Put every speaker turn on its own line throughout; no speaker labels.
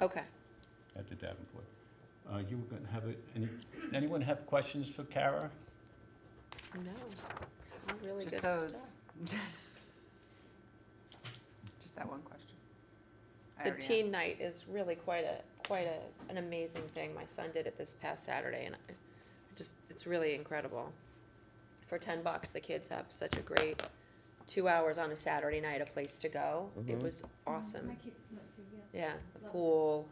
Okay.
at the Davenport. Uh, You were going to have, a- any, anyone have questions for Kara?
No, it's all really
Just
good
those.
stuff.
Just that one question. I
The
already
teen
asked.
night is really quite a, quite a, an amazing thing. My son did it this past Saturday and I I just, it's really incredible. For ten bucks, the kids have such a great two hours on a Saturday night, a place to go. It
Mhm.
Mm-hmm.
was
Mm-hmm.
awesome.
My kid went to, yeah.
Yeah, the
Love it.
pool.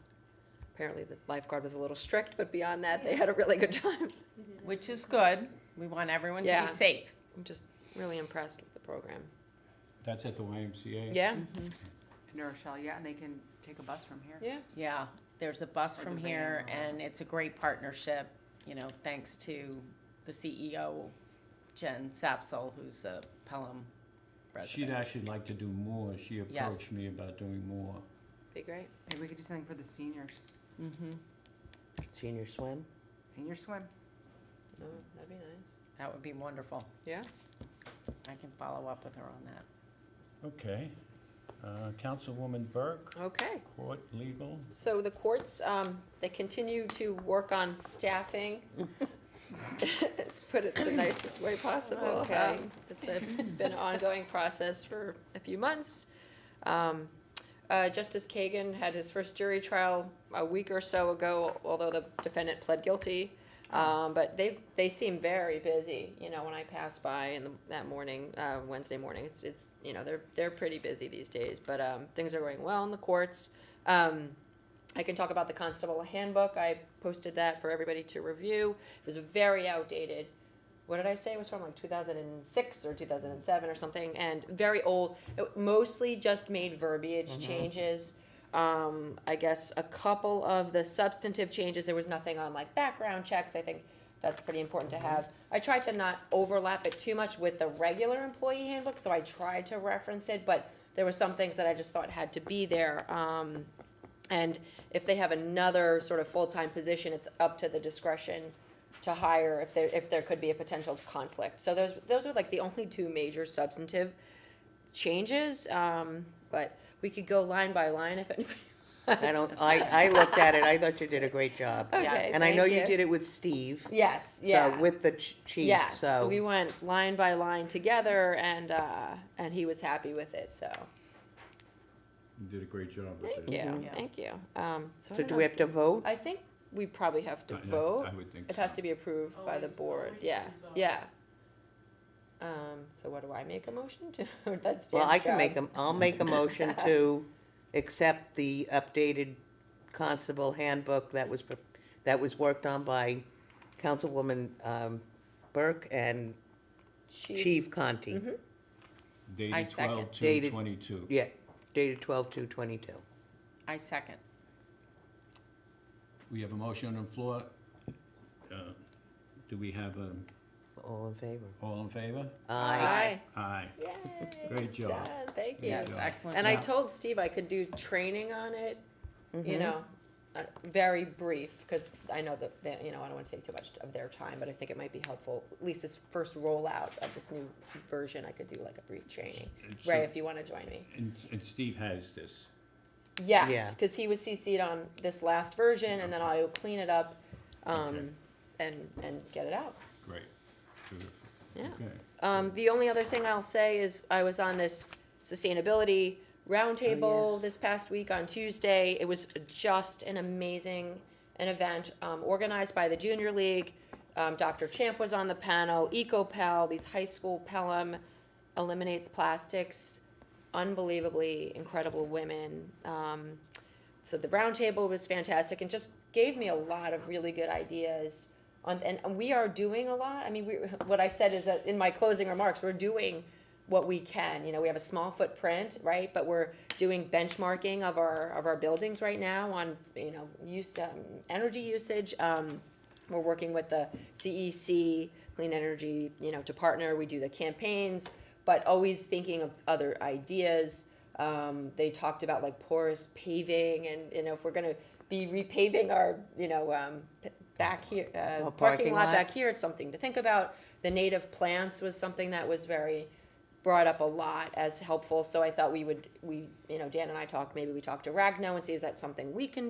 Apparently the lifeguard was a little strict, but beyond that, they had a really good time.
Is it, uh,
Which is good. We want everyone to
Yeah.
be safe.
I'm just really impressed with the program.
That's at the YMCA?
Yeah, Mm-hmm.
New Rochelle, Mm-hmm. yeah, and they can take a bus from here.
yeah.
Yeah, there's a bus
Or
from
the
here
van or-
and it's a great partnership, you know, thanks to the CEO, Jen Sapsel, who's a Pelham
She'd
resident.
actually like to do more. She
Yes.
approached me about doing more.
Be great.
Maybe we could do something for the seniors,
Mm-hmm,
Senior swim?
senior swim.
No, that'd be nice.
that would be wonderful.
Yeah.
I can follow up with her on that.
Okay. Uh, Councilwoman Burke,
Okay.
Court Legal.
So the courts, um, they continue to work on staffing. Let's put it the nicest way possible.
Okay.
Um, It's a- been an ongoing process for a few months. Um, uh, Justice Kagan had his first jury trial a week or so ago, although the defendant pled guilty. Um, but they, they seem very busy, you know, when I pass by in the, that morning, uh, Wednesday morning, it's, it's, you know, they're, they're pretty busy these days, but, um, things are going well in the courts. Um, I can talk about the constable handbook. I posted that for everybody to review. It was very outdated. What did I say? It was from like 2006 or 2007 or something, and very old. It mostly just made verbiage changes. Um, I guess a couple of the substantive changes. There was nothing on like background checks. I think that's pretty important to have. I tried to not overlap it too much with the regular employee handbook, so I tried to reference it, but there were some things that I just thought had to be there. Um, and if they have another sort of full-time position, it's up to the discretion to hire if there, if there could be a potential conflict. So those, those are like the only two major substantive changes, um, but we could go line by line if anybody.
I don't, I, I looked at it, I thought you did a great job.
Okay,
And I know
thank
you did it with Steve,
Yes,
so,
yeah.
with the ch- chief,
Yes,
so.
we went line by line together and, uh, and he was happy with it, so,
You did a great job with
thank
it.
you,
Yeah.
thank you. Um, so I
Mm-hmm. So
don't
do
know.
we have to vote?
I think we probably have to
I- I-
vote.
I would think.
It has to be approved by the
Always-
board,
always
yeah,
is, uh,
yeah. Um, so what do I make a motion to? That's Dan's
Well, I can make
job.
a, I'll make a motion to accept the updated constable handbook that was, pre- that was worked on by Councilwoman, um, Burke and Chief Conti.
Mhm.
I
Dated
second.
12
Dated-
22
Yeah, dated twelve two twenty-two.
I second.
We have a motion on the floor. Uh, Do we have, um,
All in favor?
all in favor?
Aye.
Aye.
Aye.
Yay,
Great
it's
job.
done. Thank you.
Yes,
job.
excellent
And I
job.
told Steve I could do training on it, you
Mhm.
know, uh, very brief, because I know that, they- you know, I don't want to take too much of their time, but I think it might be helpful, at least this first rollout of this new version, I could do like a brief training.
And so-
Ray, if you want to join me.
And, and Steve has this.
Yeah.
Yes, because he was CC'd on this last version, and then I'll clean it up,
Okay.
um, and, and get it out.
Great. Terrific.
Yeah.
Okay.
Um, the only other thing I'll say is I was on this sustainability roundtable this past week on Tuesday. It was just an amazing an event um, organized by the Junior League. Um, Dr. Champ was on the panel. EcoPel, these high school Pelham eliminates plastics. Unbelievably incredible women. Um, so the roundtable was fantastic and just gave me a lot of really good ideas on and we are doing a lot i mean we, what i said is that in my closing remarks we're doing what we can you know we have a small footprint right but we're doing benchmarking of our of our buildings right now on you know use um, energy usage um, we're working with the CEC, Clean Energy, you know, to partner. We do the campaigns, but always thinking of other ideas. Um, they talked about like porous paving, and you know, if we're gonna be repaving our, you know, um, p- back here uh,
Oh,
parking,
parking
lot,
lot.
back here, it's something to think about. The native plants was something that was very brought up a lot as helpful. So I thought we would, we, you know, Dan and I talked. Maybe we talk to Ragno and see is that something we can do.